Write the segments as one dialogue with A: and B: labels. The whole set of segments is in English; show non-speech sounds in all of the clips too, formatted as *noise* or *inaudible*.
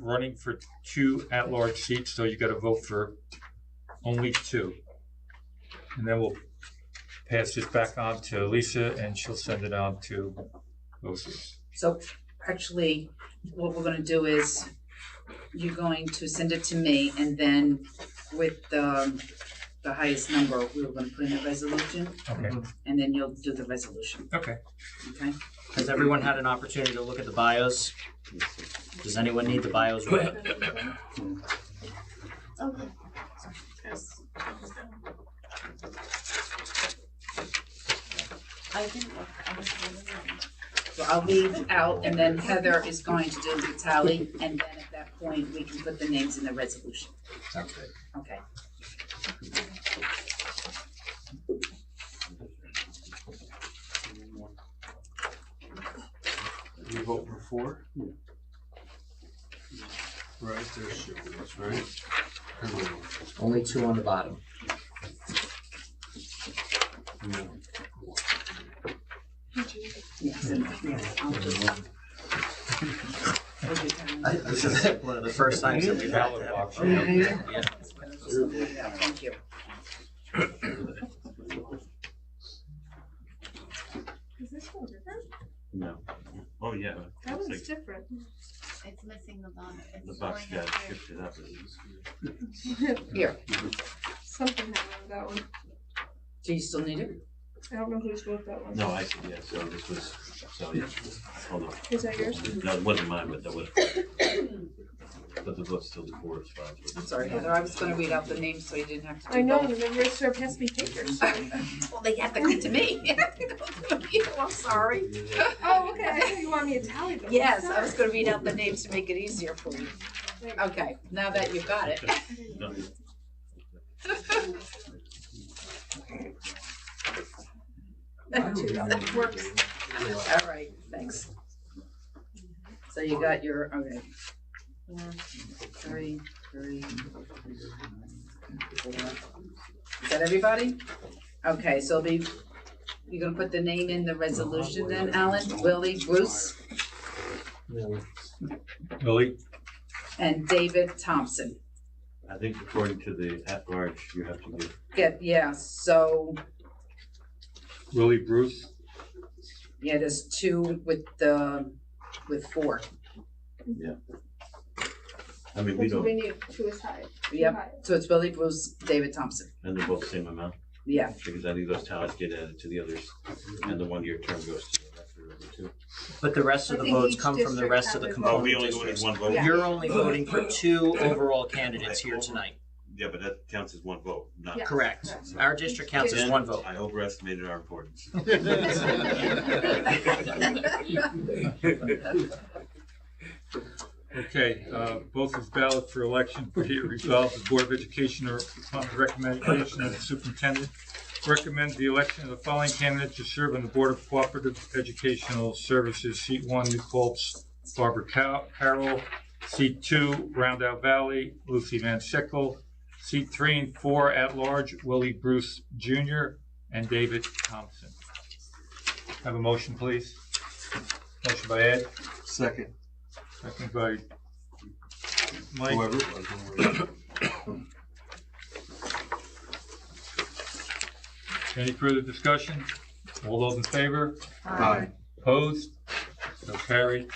A: running for two at-large seats, so you gotta vote for only two. And then we'll pass this back on to Lisa, and she'll send it on to OCs.
B: So actually, what we're gonna do is you're going to send it to me and then with the the highest number, we were gonna put in a resolution
A: Okay,
B: and then you'll do the resolution,
A: okay.
B: Mm-hmm. okay?
C: Has everyone had an opportunity to look at the bios? Does anyone need the bios read?
D: Okay. I didn't look, I was really.
B: So I'll leave out and then Heather is going to do the tally and then at that point, we can put the names in the resolution,
A: Sounds good.
B: okay?
E: You vote for four? Right, there's your votes, right? Everyone.
C: Only two on the bottom.
E: No.
B: Yes, and- yes, I'll just. We'll do tally.
C: *laughs* This is one of the first times that we've had to have. Yeah.
B: Thank you.
D: Is this one different?
F: No. Oh, yeah.
D: That one's
F: Looks like
D: different.
G: It's missing the bottom.
F: The box got shifted up.
B: Here,
D: Something happened with that one.
B: do you still need it?
D: I don't know who's wrote that one.
F: No, I see, yeah, so this was, so, yeah, hold on.
D: Is that yours?
F: No, it wasn't mine, but that was. But the book's still the four as far as.
B: I'm sorry, Heather, I was gonna read out the names so you didn't have to. do
D: I know,
B: both.
D: remember it sort of passed me
B: *laughs*
D: papers. Oh,
B: Well, they have to come to me. *laughs* They have to go to you. I'm sorry.
D: okay, I thought you wanted me to tally them.
B: Yes, I was gonna read out the names to make it easier for you. Okay, now that you've got it.
F: No.
D: Works.
B: All right, thanks. So you got your, okay. Four, three, three. four. Is that everybody? Okay, so the, you're gonna put the name in the resolution then, Alan, Willie, Bruce,
A: Lily,
B: and David Thompson.
F: I think according to the at-large, you have to give,
B: Get, yeah, so,
A: Willie Bruce,
B: yeah, there's two with the, with four.
F: I mean, we
D: That's what we
F: don't,
D: need, two is high. two
B: Yep,
D: high.
B: so it's Willie, Bruce, David Thompson,
F: and they're both same amount,
B: yeah.
F: *laughs* because I think those tallies get added to the others, and the one-year term goes to the after number two.
C: But the rest of
D: I
C: the
D: think
C: votes
D: each
C: come from the
D: district
C: rest of the
D: has a
F: Oh,
C: component
F: we only voted
C: districts.
F: one vote?
D: Yeah.
C: You're only voting for two overall candidates here tonight.
F: Yeah, but that counts as one vote, not.
D: Yeah.
C: Correct. Our district counts as
F: Then
C: one vote.
F: I overestimated our importance.
D: *laughs*
F: *laughs*
A: Okay, uh, both is valid for election. Be it resolved, the Board of Education, or upon the recommendation of the superintendent, recommends the election of the following candidate to serve on the Board of Cooperative Educational Services, seat one, New Paltz, Barbara Cow- Carroll, seat two, Round Roundout Valley, Lucy Van Sickle, seat three and four at-large, Willie Bruce Jr. and David Thompson. Have a motion, please. Motion by Ed,
E: Second,
A: second by Mike.
E: whoever it was. don't worry.
A: Any further discussion? All those in favor?
E: Aye.
A: Opposed? So carried.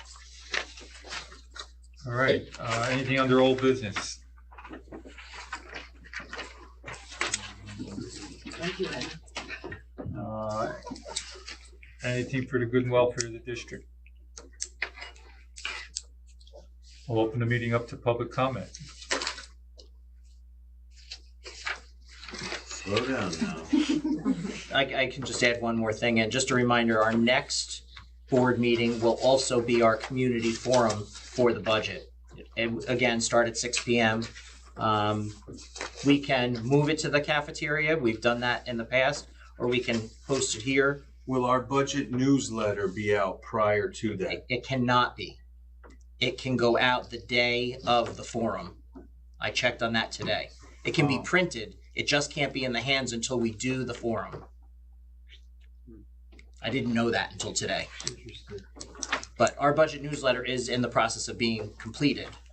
A: All right, uh, anything under old business?
B: Thank you, Ed.
A: Uh, Anything for the good and welfare of the district? We'll open the meeting up to public comment.
F: Slow down now.
C: I, I can just add one more thing, and just a reminder, our next board meeting will also be our community forum for the budget. And again, start at six P M. Um, we can move it to the cafeteria, we've done that in the past, or we can host it here.
E: Will our budget newsletter be out prior to that?
C: It, it cannot be. It can go out the day of the forum. I checked on that today. It can be
E: Oh.
C: printed, it just can't be in the hands until we do the forum. I didn't know that until today. But our budget newsletter is in the process of being completed.